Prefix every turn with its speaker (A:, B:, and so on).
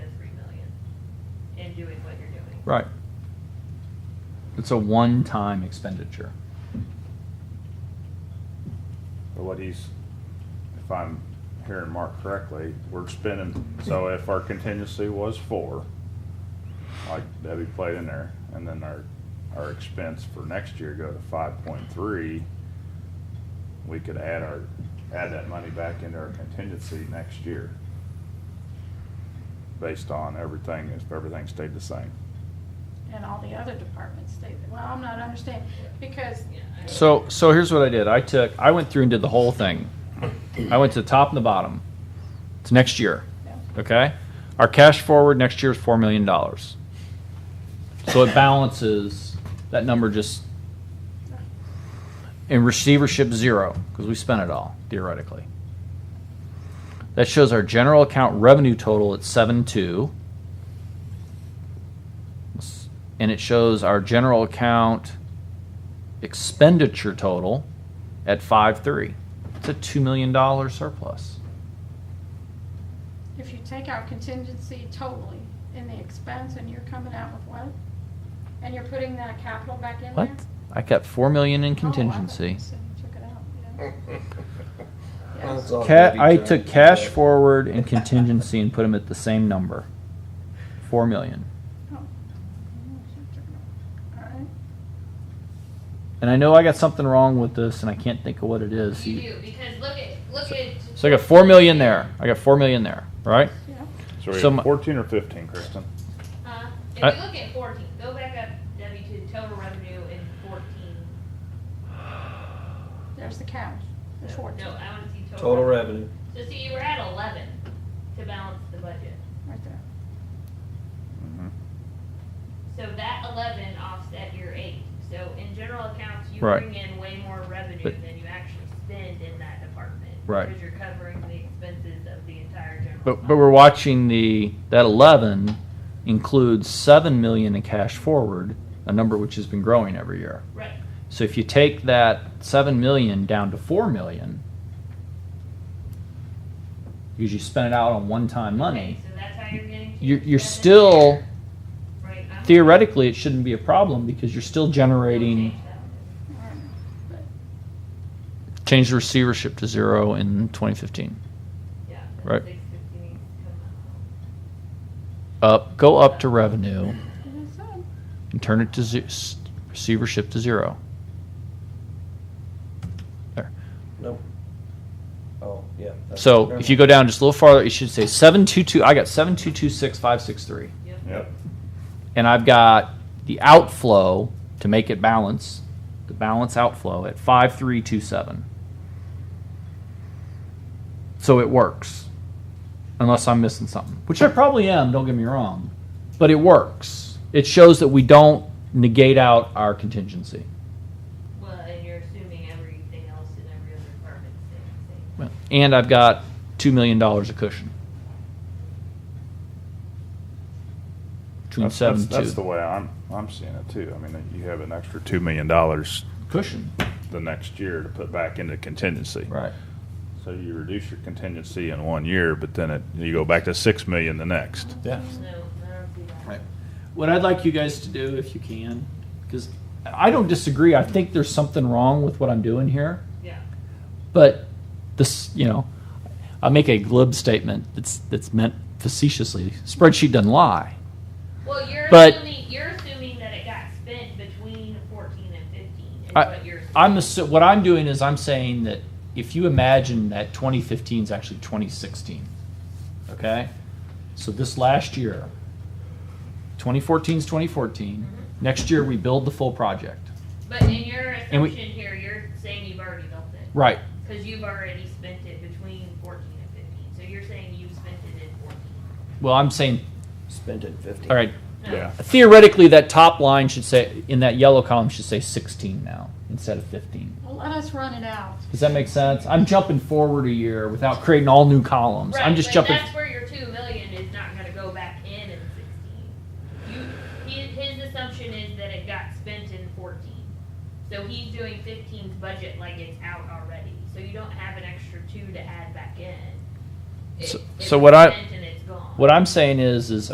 A: in doing what you're doing.
B: Right. It's a one-time expenditure.
C: But what he's, if I'm hearing Mark correctly, we're spending, so if our contingency was four, like Debbie played in there, and then our, our expense for next year go to five point three, we could add our, add that money back into our contingency next year. Based on everything, if everything stayed the same.
D: and all the other departments, they, well, I'm not understanding, because
B: So, so here's what I did. I took, I went through and did the whole thing. I went to the top and the bottom. It's next year.
D: Yeah.
B: Okay? Our cash forward next year is $4 million. So it balances, that number just, in receivership, zero, because we spent it all, theoretically. That shows our general account revenue total at 7.2. And it shows our general account expenditure total at five three. It's a two million dollar surplus.
D: if you take out contingency totally in the expense and you're coming out with what? And you're putting that capital back in there?
B: What? I kept four million in
D: Oh, I thought you
B: contingency.
D: said you took it out, yeah.
E: Oh, That's
D: Yes.
E: all
B: Ca-
E: Debbie
B: I
E: does.
B: took cash forward and contingency and put them at the same number, four million.
D: Oh. All right.
B: And I know I got something wrong with this, and I can't think of what it is.
A: You do, because look at, look at.
B: So I got four million there. I got four million there, right?
D: Yeah.
C: So we
B: So my-
C: have fourteen or fifteen, Kristen?
A: Huh? If
B: I-
A: you look at fourteen, go back up, Debbie, to total revenue in fourteen.
D: There's the cash, there's fourteen,
A: No, I wanna see total.
E: Total revenue.
A: So see, you were at eleven to balance the budget.
D: right there.
C: Mhm.
A: So that eleven offset your eight. So in general accounts, you
B: Right.
A: bring in way more revenue
B: But-
A: than you actually spend in that department.
B: Right.
A: Because you're covering the expenses of the entire general.
B: But but
A: fund.
B: we're watching the that eleven includes seven million in cash forward, a number which has been growing every year.
A: Right,
B: So if you take that seven million down to four million, because you spent it out on one-time
A: okay,
B: money,
A: so that's how you're getting. to
B: you're,
A: your
B: you're
A: seven
B: still
A: there. Right, I'm-
B: theoretically it shouldn't be a problem because you're still
A: Change
B: generating.
A: that.
D: All right.
B: Change the receivership to zero in 2015.
A: Yeah, the
B: Right.
A: 650 needs to come out.
B: Up, go up to revenue
D: It is done.
B: and turn it to ze- s- receivership to zero. There.
E: Nope. Oh, yeah. that's-
B: So if you go down just a little farther, it should say seven two two. I got seven two two six five six three.
C: Yep.
B: and I've got the outflow to make it balance, the balance outflow at 5327. So it works. Unless I'm missing something, which I probably am, don't get me wrong, but it works. It shows that we don't negate out our contingency.
A: Well, and you're assuming everything else in every other department stays the same.
B: And I've got $2 million a cushion. Between
C: That's-
B: seven
C: that's-
B: and two.
C: That's the way I'm, I'm seeing it too. I mean, you have an extra two million dollars
B: cushion.
C: the next year to put back into contingency.
B: Right.
C: So you reduce your contingency in one year, but then it, you go back to six million the next.
A: No,
B: Yeah.
A: I don't see that.
B: What I'd like you guys to do, if you can, because I don't disagree. I think there's something wrong with what I'm doing here,
A: Yeah.
B: but this, you know, I make a glib statement that's that's meant facetiously. Spreadsheet doesn't lie.
A: Well, you're
B: But-
A: assuming, you're assuming that it got spent between fourteen and fifteen is
B: I-
A: what you're.
B: I'm
A: assuming.
B: assu- what I'm doing is I'm saying that if you imagine that 2015 is actually 2016, okay? So this last year, 2014 is 2014. Next year we build the full project.
A: But in your
B: And we-
A: assumption here, you're saying you've already built it,
B: Right.
A: cause you've already spent it between fourteen and fifteen, so you're saying you spent it in fourteen.
B: Well, I'm saying,
E: Spent it fifty.
B: all right,
A: No.
C: Yeah.
B: theoretically that top line should say in that yellow column should say 16 now instead of 15
D: Well, let us run it out.
B: does that make sense i'm jumping forward a year without creating all new columns i'm
A: Right,
B: just
A: but
B: jumping
A: That's where your two million is not gonna go back in in sixteen. You, his, his assumption is that it got spent in fourteen. So he's doing 15's budget like it's out already, so you don't have an extra two to add back in. It-
B: So-
A: it's
B: so what I-
A: spent and it's gone.
B: what i'm saying is is